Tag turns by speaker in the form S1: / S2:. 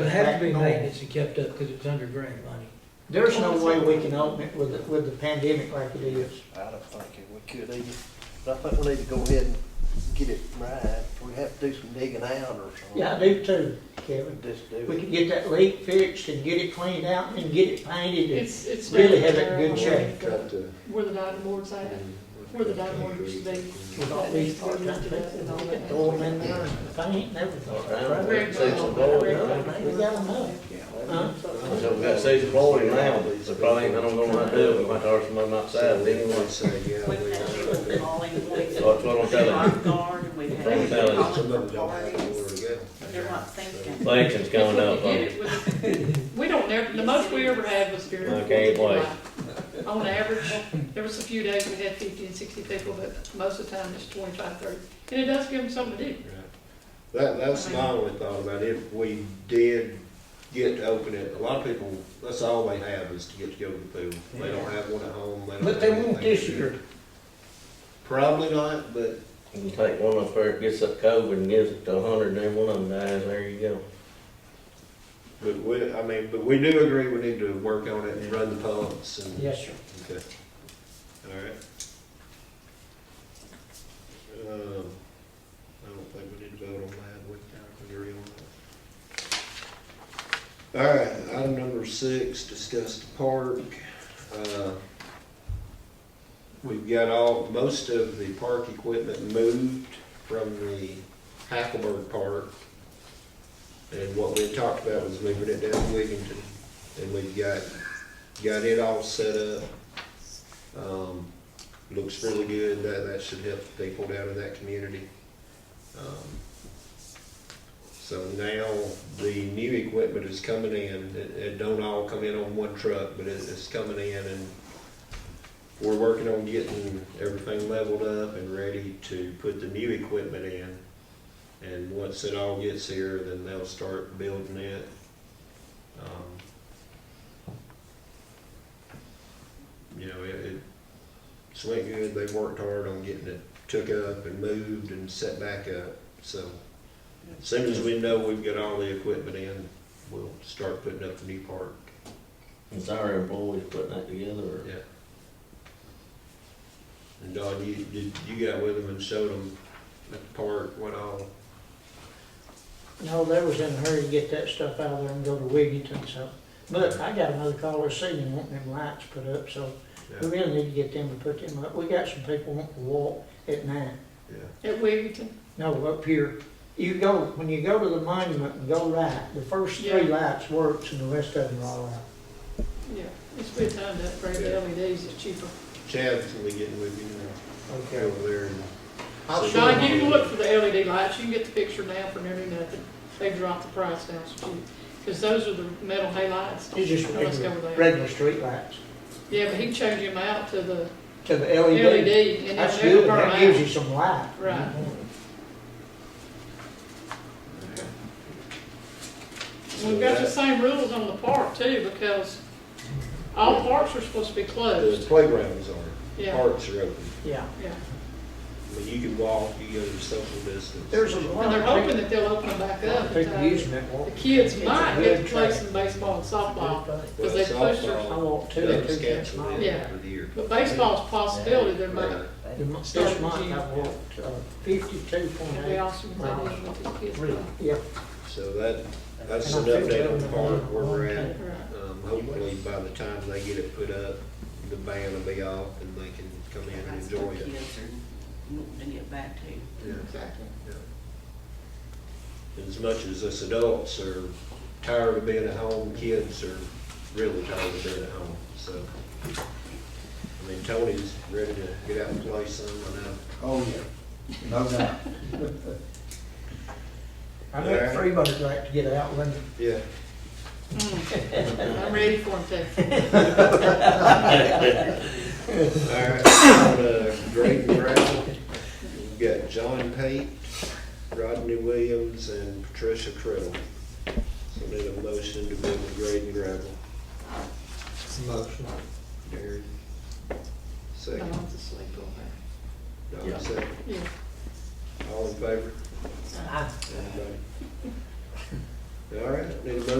S1: would have to be
S2: back normal.
S1: maintenance and kept up because it's under grant money.
S2: There's no way we can open it with, the- with the pandemic like it is.
S3: I don't think we could either, but I think we need to go ahead and get it right, we have to do some digging out or something.
S2: Yeah, I do too, Kevin.
S3: Just do
S2: We
S3: it.
S2: could get that leak fixed and get it cleaned out and get it painted and
S4: It's, it's.
S2: really
S4: down
S2: have it in
S4: there
S2: good
S4: on
S2: shape. uh,
S4: the- Where the diving board's at, where the diving board used to be.
S2: with all these part-time people, we could throw them in there and paint and everything.
S4: Rick,
S5: Say it's a board, huh?
S2: We got enough, huh?
S5: So we got season flooring now, so probably, I don't know what to do, we might hire someone outside, but anyway.
S3: Anyone say, yeah.
S6: We've had people calling, we've had
S5: That's what I'm telling
S6: lifeguard, and we've
S5: That's what I'm
S6: had
S5: telling
S6: people
S5: you.
S6: calling for
S3: Where to
S6: parties.
S3: go.
S6: They're not thinking.
S5: Sanctions
S4: If we
S5: coming up,
S4: could get it with- We don't, never- the most we ever had was during.
S5: I can't wait.
S4: On average, there was a few days we had fifty and sixty people, but most of the time it's 25, 30. And it does give them something to do.
S7: That, that's my only thought about if we did get to open it, a lot of people, that's all they have is to get to go to the pool. They don't have one at home, they don't.
S2: But they
S7: have
S2: won't
S7: anything to
S2: this
S7: do.
S2: year.
S7: Probably not, but
S5: You take one up there, gets up COVID and gives it to a hundred, then one of them dies, there you go.
S7: But we, I mean, but we do agree we need to work on it and run the pumps and.
S2: Yes, sir.
S7: Okay. All right. Um, I don't think we need to vote on that, we can agree on that. All right, item number six, discuss the park. Uh, We've got all, most of the park equipment moved from the Hackleburg Park. And what we had talked about was moving it down to Wigginton, and we've got, got it all set up. Um, looks really good, that, that should help the people down in that community. Um, So now, the new equipment is coming in, it, it don't all come in on one truck, but it, it's coming in and we're working on getting everything leveled up and ready to put the new equipment in. And once it all gets here, then they'll start building it. Um, you know, it, it it's went good. They worked hard on getting it took up and moved and set back up. So as soon as we know we've got all the equipment in, we'll start putting up the new park.
S5: It's our employees putting that together, or?
S7: Yeah. And Don, you, you, you got with them and showed them at the park what all,
S2: No, they was in a hurry to get that stuff out of there and go to Wigginton, so. But I got another caller saying wanting them lights put up, so we
S7: yeah,
S2: really need to get them to put them up. We got some people wanting to walk at night.
S7: yeah.
S4: At Wigginton,
S2: No, up here. You go, when you go to the monument and go right, the first three
S4: Yeah.
S2: lights works and the rest of them are all out.
S4: yeah, it's a good time to upgrade the
S7: Yeah.
S4: LEDs, it's cheaper.
S7: Chad's gonna be getting with you now, over there and.
S2: I'll
S7: So-
S2: show
S4: John, you can look for the LED lights, you can get the picture now for nearly nothing. They dropped the price down, because those are the metal halides.
S2: It's just
S4: Let's go
S2: regular,
S4: over there.
S2: regular street lights
S4: Yeah, but he changed them out to the
S2: to the LED.
S4: LED, and
S2: That's
S4: they'll never
S2: good,
S4: burn
S2: that gives
S4: out.
S2: you some light.
S4: Right. We've got the same rules on the park too, because all parks are supposed to be
S7: The
S4: closed.
S7: playgrounds are,
S4: Yeah,
S7: parks are open.
S2: Yeah,
S4: yeah.
S7: I mean, you can walk, you go to social distance.
S2: there's a lot
S4: And they're
S2: of
S4: hoping
S2: people,
S4: that they'll open them back up. in
S2: people
S4: time.
S2: using that
S4: The
S2: walk.
S4: kids
S2: It's a
S4: might
S2: good
S4: get to play
S2: track.
S4: some baseball and softball, because they
S7: Well,
S4: pushed
S7: softball-
S4: her.
S2: I walk two,
S7: That
S2: two
S7: was
S2: kids
S7: canceled
S2: mine.
S7: in
S4: Yeah.
S7: over the year.
S4: But baseball's a possibility, there might,
S2: The mo- This month I walked uh, fifty-two point
S4: be
S2: eight.
S4: awesome if they did with the kids. play.
S2: Yeah,
S7: So that, that's an
S2: And I think
S7: update on
S2: they're
S7: the park where we're at.
S4: Right.
S7: Um, hopefully by the time they get it put up, the ban will be off and they can come in and
S6: That's
S7: enjoy
S6: what
S7: it.
S6: kids are wanting to get back to.
S7: Yeah.
S4: Exactly.
S7: As much as us adults are tired of being at home, kids are really tired of being at home, so. I mean, Tony's ready to get out and play some, I know.
S3: Oh, yeah, no doubt.
S2: I bet everybody'd like to get out when
S7: Yeah.
S4: Mm. I'm ready for them to.
S7: All right, uh, Greg Brown, we have got John Pate, Rodney Williams, and Patricia Criddle. So need a motion to build the grade and gravel.
S1: Motion.
S7: Darren, second.
S4: Don's asleep over
S7: Don, second.
S4: there. Yeah.
S7: All in favor? Anybody? All right, need a motion